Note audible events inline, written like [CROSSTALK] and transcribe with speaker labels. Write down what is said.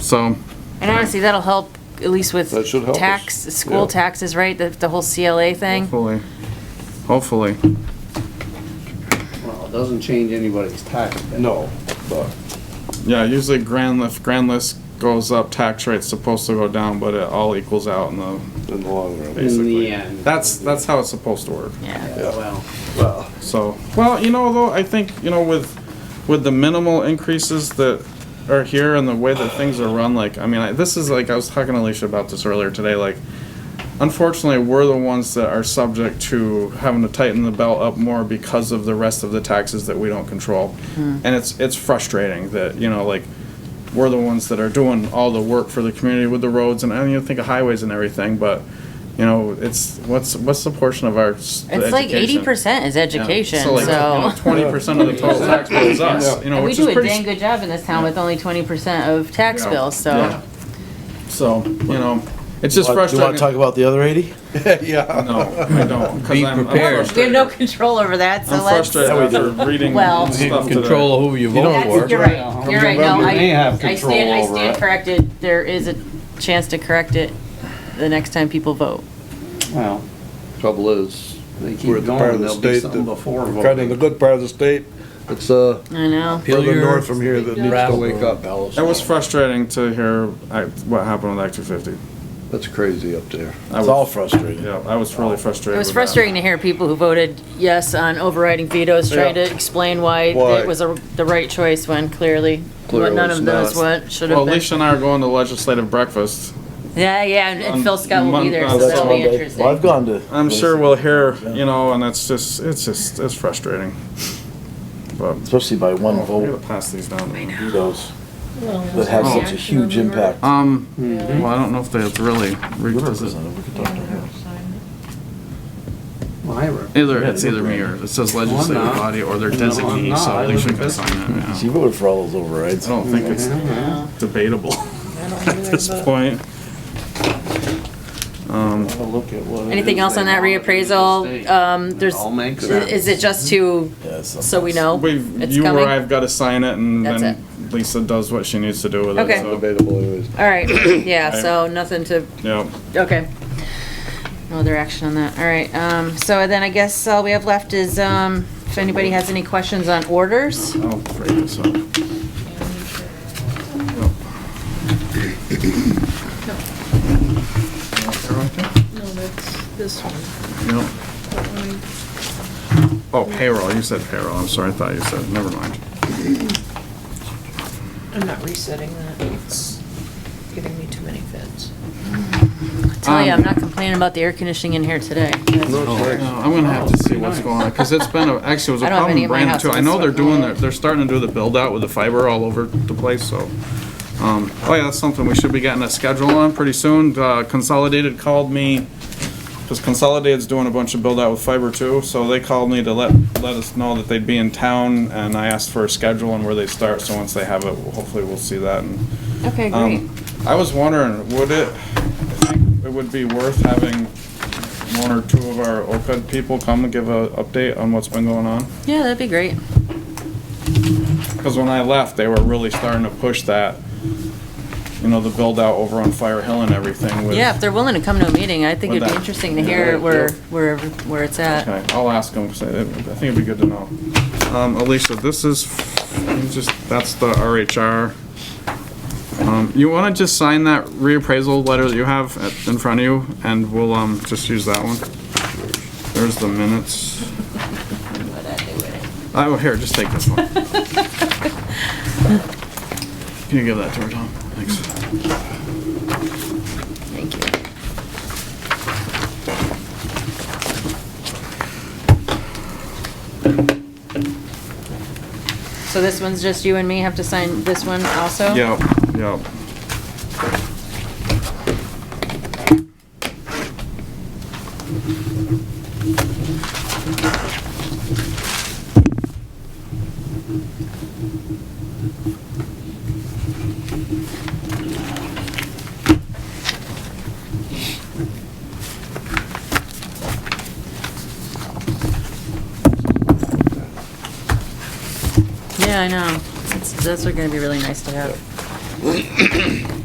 Speaker 1: So,
Speaker 2: And honestly, that'll help, at least with
Speaker 3: That should help us,
Speaker 2: tax,
Speaker 3: yeah.
Speaker 2: school taxes, right, the, the whole CLA thing?
Speaker 1: hopefully, hopefully.
Speaker 4: Well, it doesn't change anybody's tax bill.
Speaker 3: No, but
Speaker 1: Yeah, usually grand list, grand list goes up, tax rate's supposed to go down, but it all equals out in the,
Speaker 3: in the long run.
Speaker 4: In
Speaker 1: basically.
Speaker 4: the end.
Speaker 1: That's, that's how it's supposed to work.
Speaker 2: Yeah.
Speaker 4: Yeah, Well,
Speaker 3: Well,
Speaker 1: So, well, you know, though, I think, you know, with, with the minimal increases that are here and the way that things are run, like, I mean, I, this is like, I was talking to Alicia about this earlier today, like, unfortunately, we're the ones that are subject to having to tighten the belt up more because of the rest of the taxes that we don't control.
Speaker 2: Hmm.
Speaker 1: And it's, it's frustrating that, you know, like, we're the ones that are doing all the work for the community with the roads and I don't even think of highways and everything, but, you know, it's, what's, what's the portion of our s-
Speaker 2: It's like eighty
Speaker 1: education?
Speaker 2: percent is education, so.
Speaker 1: twenty percent of the total tax bill is us, you know,
Speaker 2: And we
Speaker 1: which is
Speaker 2: do a
Speaker 1: pretty.
Speaker 2: dang
Speaker 1: s-
Speaker 2: good job in this town with only twenty percent of tax
Speaker 1: Yeah.
Speaker 2: bills,
Speaker 1: Yeah.
Speaker 2: so.
Speaker 1: So, you know, it's just
Speaker 5: Do you want to talk
Speaker 1: frustrating.
Speaker 5: about the other 80?
Speaker 3: yeah.
Speaker 1: No, I don't, because
Speaker 6: Be
Speaker 1: I'm
Speaker 6: prepared.
Speaker 1: I'm
Speaker 2: We have
Speaker 1: frustrated.
Speaker 2: no control over that, so
Speaker 1: I'm
Speaker 2: let's.
Speaker 1: frustrated after reading
Speaker 2: Well-
Speaker 1: stuff today.
Speaker 6: Control who you vote
Speaker 2: That's-
Speaker 6: for.
Speaker 2: You're right, you're right, no,
Speaker 4: November, they
Speaker 2: I,
Speaker 4: have
Speaker 2: I
Speaker 4: control
Speaker 2: stand, I
Speaker 4: over
Speaker 2: stand
Speaker 4: it.
Speaker 2: corrected, there is a chance to correct it the next time people vote.
Speaker 4: well,
Speaker 3: Trouble is,
Speaker 4: they
Speaker 3: we're
Speaker 4: keep
Speaker 3: the part of
Speaker 4: going,
Speaker 3: the
Speaker 4: there'll be
Speaker 3: state
Speaker 4: something before
Speaker 3: that, kind of the
Speaker 4: voting.
Speaker 3: good part of the state, it's, uh,
Speaker 2: I know,
Speaker 3: further north from here that needs to wake up.
Speaker 1: It was frustrating to hear I- what happened with Act two fifty.
Speaker 3: That's crazy up there.
Speaker 5: It's all frustrating.
Speaker 1: Yeah, I was really frustrated.
Speaker 2: it was
Speaker 1: with that.
Speaker 2: frustrating to hear people who voted yes on overriding vetoes trying to explain why
Speaker 3: Why?
Speaker 2: it was a- the right choice when clearly,
Speaker 3: Clearly
Speaker 2: none of
Speaker 3: it's
Speaker 2: those
Speaker 3: not.
Speaker 2: what should
Speaker 1: Well,
Speaker 2: have been.
Speaker 1: Alicia and I are going to legislative breakfast.
Speaker 2: Yeah, yeah, and- and
Speaker 1: On
Speaker 2: Phil Scott will be there,
Speaker 1: Mon-
Speaker 2: so
Speaker 1: oh,
Speaker 5: That's
Speaker 2: that'll be
Speaker 5: Monday. Well, I've
Speaker 2: interesting.
Speaker 5: gone to.
Speaker 1: I'm sure we'll hear, you know, and it's just, it's just, it's frustrating. But,
Speaker 5: Especially by one
Speaker 1: I'm gonna
Speaker 5: vote,
Speaker 1: pass these down.
Speaker 5: those that have such a huge impact.
Speaker 1: Um, well, I don't know if that's really, re-
Speaker 5: You're
Speaker 1: does it-
Speaker 5: represented, we could talk to her.
Speaker 4: Myra.
Speaker 1: either, it's either me or, it says legislative
Speaker 4: not.
Speaker 1: body or their
Speaker 4: No, I'm
Speaker 1: designee,
Speaker 4: not.
Speaker 1: so
Speaker 4: I
Speaker 1: at least
Speaker 4: live
Speaker 1: we
Speaker 4: in
Speaker 1: can sign it,
Speaker 5: She
Speaker 1: yeah.
Speaker 5: voted for all those
Speaker 1: I
Speaker 5: overrides.
Speaker 1: don't think it's debatable [LAUGHS] at this point. Um,
Speaker 5: Have a look at what.
Speaker 2: Anything else on that reappraisal? Um, there's,
Speaker 4: All makes sense.
Speaker 2: is it just to, so we know
Speaker 1: we've,
Speaker 2: it's
Speaker 1: you or
Speaker 2: coming?
Speaker 1: I've gotta sign it and
Speaker 2: That's
Speaker 1: then Lisa does what she needs to do with it,
Speaker 2: Okay.
Speaker 1: so,
Speaker 3: Debatable anyways.
Speaker 2: All
Speaker 1: [COUGHS]
Speaker 2: right, yeah,
Speaker 1: Okay.
Speaker 2: so nothing to,
Speaker 1: yeah.
Speaker 2: okay. No other action on that, all right, um, so then I guess all we have left is, um, if anybody has any questions on orders?
Speaker 1: I'll break this up.
Speaker 7: No, that's this one.
Speaker 1: No.
Speaker 7: But when we-
Speaker 1: Oh, payroll, you said payroll, I'm sorry, I thought you said, never mind.
Speaker 7: I'm not resetting that. It's giving me too many fits.
Speaker 2: Tell you,
Speaker 1: Um,
Speaker 2: I'm not complaining about the air conditioning in here today.
Speaker 1: No, I'm gonna have to see what's going on, cause it's been, a- actually, it was a
Speaker 2: I don't have
Speaker 1: problem in
Speaker 2: any at my
Speaker 1: Brandon
Speaker 2: house,
Speaker 1: too. I
Speaker 2: so
Speaker 1: know
Speaker 2: it's
Speaker 1: they're
Speaker 2: fine.
Speaker 1: doing, their- they're starting to do the build out with the fiber all over the place, so. Um, oh yeah, that's something we should be getting a schedule on pretty soon. Uh, Consolidated called me, cause Consolidated's doing a bunch of build out with fiber too, so they called me to let, let us know that they'd be in town, and I asked for a schedule and where they start, so once they have it, hopefully we'll see that and
Speaker 2: Okay, great.
Speaker 1: um, I was wondering, would it, I think it would be worth having one or two of our OPED people come and give a update on what's been going on?
Speaker 2: Yeah, that'd be great.
Speaker 1: Because when I left, they were really starting to push that, you know, the build out over on Fire Hill and everything with.
Speaker 2: Yeah, if they're willing to come to a meeting, I think
Speaker 1: With
Speaker 2: it'd be
Speaker 1: that.
Speaker 2: interesting to hear where, where, where it's at.
Speaker 1: Okay, I'll ask them, 'cause I I think it'd be good to know. Um, Alicia, this is, you just, that's the RHR. Um, you wanna just sign that reappraisal letter that you have at- in front of you, and we'll, um, just use that one? There's the minutes. Oh, here, just take this one. Can you give that to her, Tom? Thanks.
Speaker 2: Thank you. So this one's just you and me have to sign this one also?
Speaker 1: Yep, yep.
Speaker 2: Yeah, I know. It's- Those are gonna be really nice to have.